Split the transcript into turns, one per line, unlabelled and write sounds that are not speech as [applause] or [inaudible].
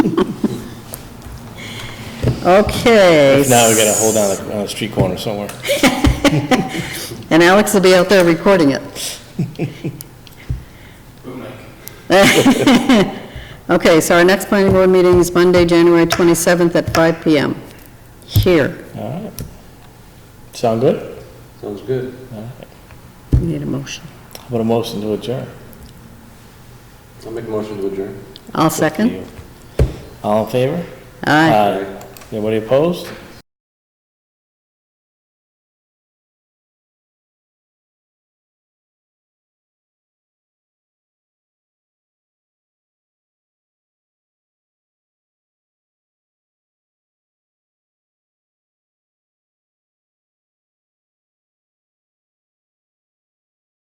Okay.
Now we gotta hold on a, on a street corner somewhere.
And Alex will be out there recording it. [laughs] Okay, so our next planning board meeting is Monday, January 27th at 5 PM, here.
All right. Sound good?
Sounds good.
We Need a motion.
How about a motion to adjourn?
I'll make a motion to adjourn.
I'll second.
All in favor?
Aye.
Anybody opposed?